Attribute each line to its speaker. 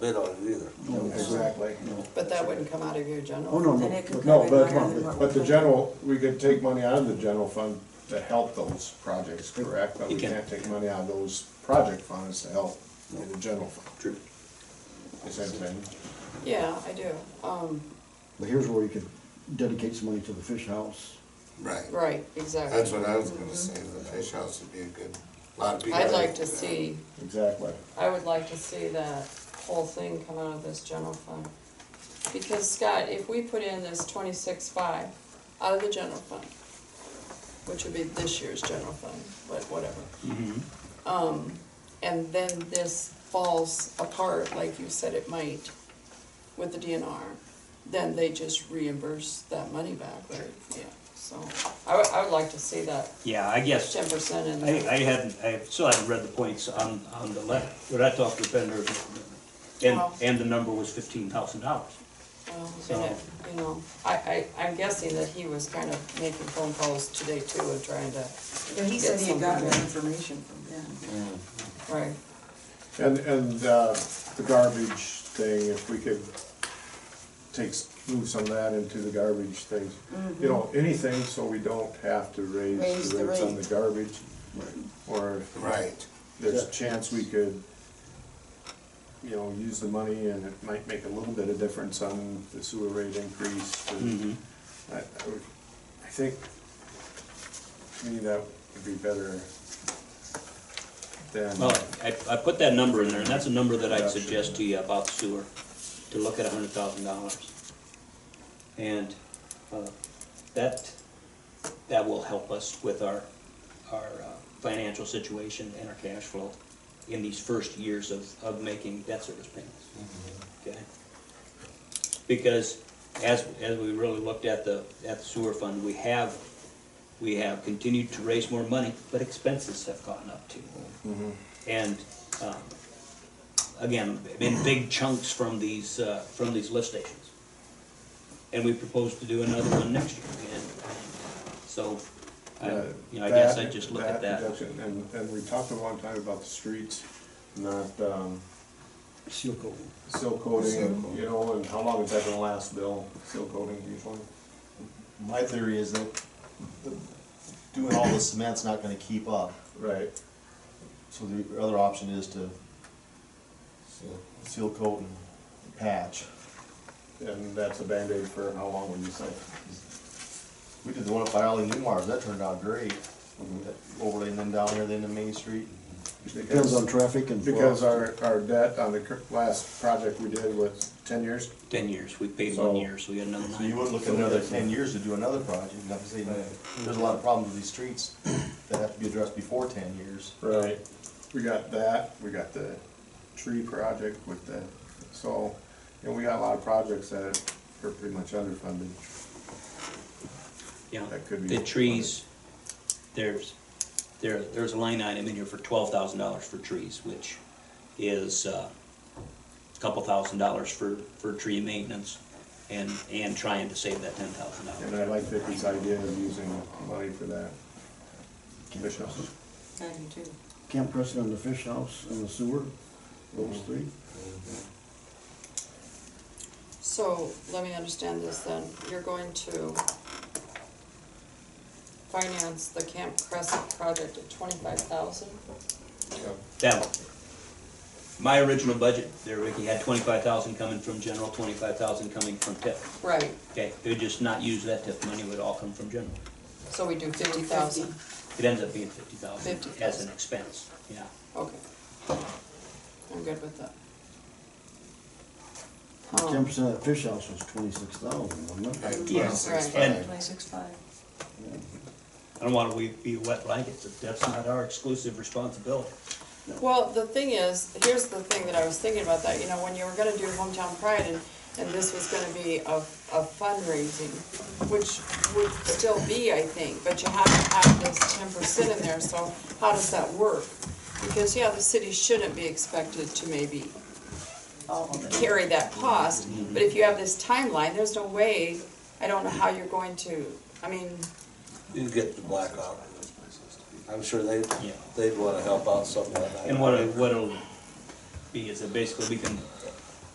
Speaker 1: bid on it either.
Speaker 2: No, Exactly.
Speaker 3: But that wouldn't come out of your
Speaker 2: Oh,
Speaker 3: general?
Speaker 2: no,
Speaker 4: And
Speaker 2: no,
Speaker 4: it could
Speaker 2: no,
Speaker 4: cover
Speaker 2: but,
Speaker 4: higher than what
Speaker 2: come on, but
Speaker 4: we're
Speaker 2: the general, we could take money out of the general fund to help those projects, correct? But we
Speaker 5: You can.
Speaker 2: can't take money out of those project funds to help in the general fund.
Speaker 5: True.
Speaker 2: Is that thing?
Speaker 3: Yeah, I do. Um,
Speaker 6: But here's where you could dedicate some money to the fish house.
Speaker 1: Right.
Speaker 3: right, exactly.
Speaker 1: That's what I was gonna say, the fish house would be a good, lot of people.
Speaker 3: I'd like to see,
Speaker 2: Exactly.
Speaker 3: I would like to see that whole thing come out of this general fund. Because Scott, if we put in this twenty-six five out of the general fund, which would be this year's general fund, but whatever. Um, and then this falls apart, like you said it might, with the DNR, then they just reimburse that money back, right? Yeah, so, I would, I would like to see that
Speaker 5: Yeah, I guess,
Speaker 3: ten percent in
Speaker 5: I,
Speaker 3: there.
Speaker 5: I hadn't, I still haven't read the points on, on the letter, but I talked to Bender, and,
Speaker 3: Wow.
Speaker 5: and the number was fifteen thousand dollars.
Speaker 3: Well,
Speaker 5: So-
Speaker 3: and it, you know, I, I, I'm guessing that he was kind of making phone calls today too and trying to,
Speaker 4: Yeah, he said he had gotten
Speaker 3: Get
Speaker 4: that
Speaker 3: some-
Speaker 4: information from them.
Speaker 3: right,
Speaker 2: And, and, uh, the garbage thing, if we could take, s- move some of that into the garbage things. You know, anything so we don't have to
Speaker 4: Raise
Speaker 2: Mm-hmm. raise the
Speaker 4: the
Speaker 2: rates on
Speaker 4: rate.
Speaker 2: the garbage. Or if
Speaker 1: Right,
Speaker 2: there's a chance we could, you know, use the money and it might make a little bit of difference on the sewer rate increase. but
Speaker 5: Mhm.
Speaker 2: I, I would- I think, to me, that would be better than.
Speaker 5: Well, I, I put that number in there, and that's a number that I'd suggest to you about sewer, to look at a hundred thousand dollars. And, uh, that, that will help us with our, our uh, financial situation and our cash flow in these first years of, of making debt service payments. Okay? Because as, as we really looked at the, at the sewer fund, we have, we have continued to raise more money, but expenses have gone up too. And, um, again, in big chunks from these, uh, from these lift stations. And we propose to do another one next year, and so, I,
Speaker 2: uh,
Speaker 5: you know, I guess
Speaker 2: that-
Speaker 5: I just look at that.
Speaker 2: reduction. And, and we talked a long time about the streets, not, um,
Speaker 6: Seal coating.
Speaker 2: seal coating,
Speaker 1: Seal
Speaker 2: you know, and how long is that gonna last, Bill, seal coating usually?
Speaker 7: My theory is that the- doing all this cement's not gonna keep up,
Speaker 2: Right.
Speaker 7: so the other option is to
Speaker 1: so,
Speaker 7: seal coat and patch.
Speaker 2: And that's a Band-Aid for how long, would you say?
Speaker 7: We did the one up by Ollie Newmar's, that turned out great, That overlay and then down here, then to Main Street.
Speaker 6: Depends on traffic and.
Speaker 2: Because our, our debt on the cur- last project we did was ten years,
Speaker 5: Ten years, we paid one
Speaker 2: So-
Speaker 5: year, so we got another
Speaker 7: So you
Speaker 5: nine.
Speaker 7: wouldn't look at another ten years to do another project, and I'm saying, there's a lot of problems with these streets that have to be addressed before ten years.
Speaker 2: Right. We got that, we got the tree project with the, so, and we got a lot of projects that are pretty much underfunded.
Speaker 5: Yeah,
Speaker 2: that could be
Speaker 5: the trees, there's, there, there's a line item in here for twelve thousand dollars for trees, which is, uh, a couple thousand dollars for, for tree maintenance and, and trying to save that ten thousand
Speaker 2: And
Speaker 5: dollars.
Speaker 2: I like Vicky's idea of using money for that. Commissioners,
Speaker 4: I do too.
Speaker 6: Camp Preston and the fish house and the sewer, those three.
Speaker 3: so let me understand this then, you're going to finance the Camp Crescent project at twenty-five thousand?
Speaker 5: That one. My original budget there, Ricky, had twenty-five thousand coming from general, twenty-five thousand coming from TIP.
Speaker 3: Right,
Speaker 5: Okay, they would just not use that TIP money, it would all come from general.
Speaker 3: so we do fifty thousand,
Speaker 5: It ends up being fifty thousand as
Speaker 3: 50,000.
Speaker 5: an expense, yeah.
Speaker 3: okay. I'm good with that.
Speaker 6: Ten percent of that fish house was twenty-six thousand, wasn't
Speaker 1: at
Speaker 6: it?
Speaker 1: twenty-six
Speaker 5: And-
Speaker 1: five.
Speaker 4: Twenty-six five.
Speaker 5: I don't want to be a wet blanket, so that's not our exclusive responsibility.
Speaker 3: Well, the thing is, here's the thing that I was thinking about that, you know, when you were gonna do hometown pride and, and this was gonna be a, a fundraising, which would still be, I think, but you have to have this ten percent in there, so how does that work? Because, yeah, the city shouldn't be expected to maybe carry that cost, but if you have this timeline, there's no way, I don't know how you're going to, I mean,
Speaker 1: You get the blackout. I'm sure they,
Speaker 5: Yeah.
Speaker 1: they'd wanna help out somewhat. I-
Speaker 5: And what it, what it'll be is that basically we can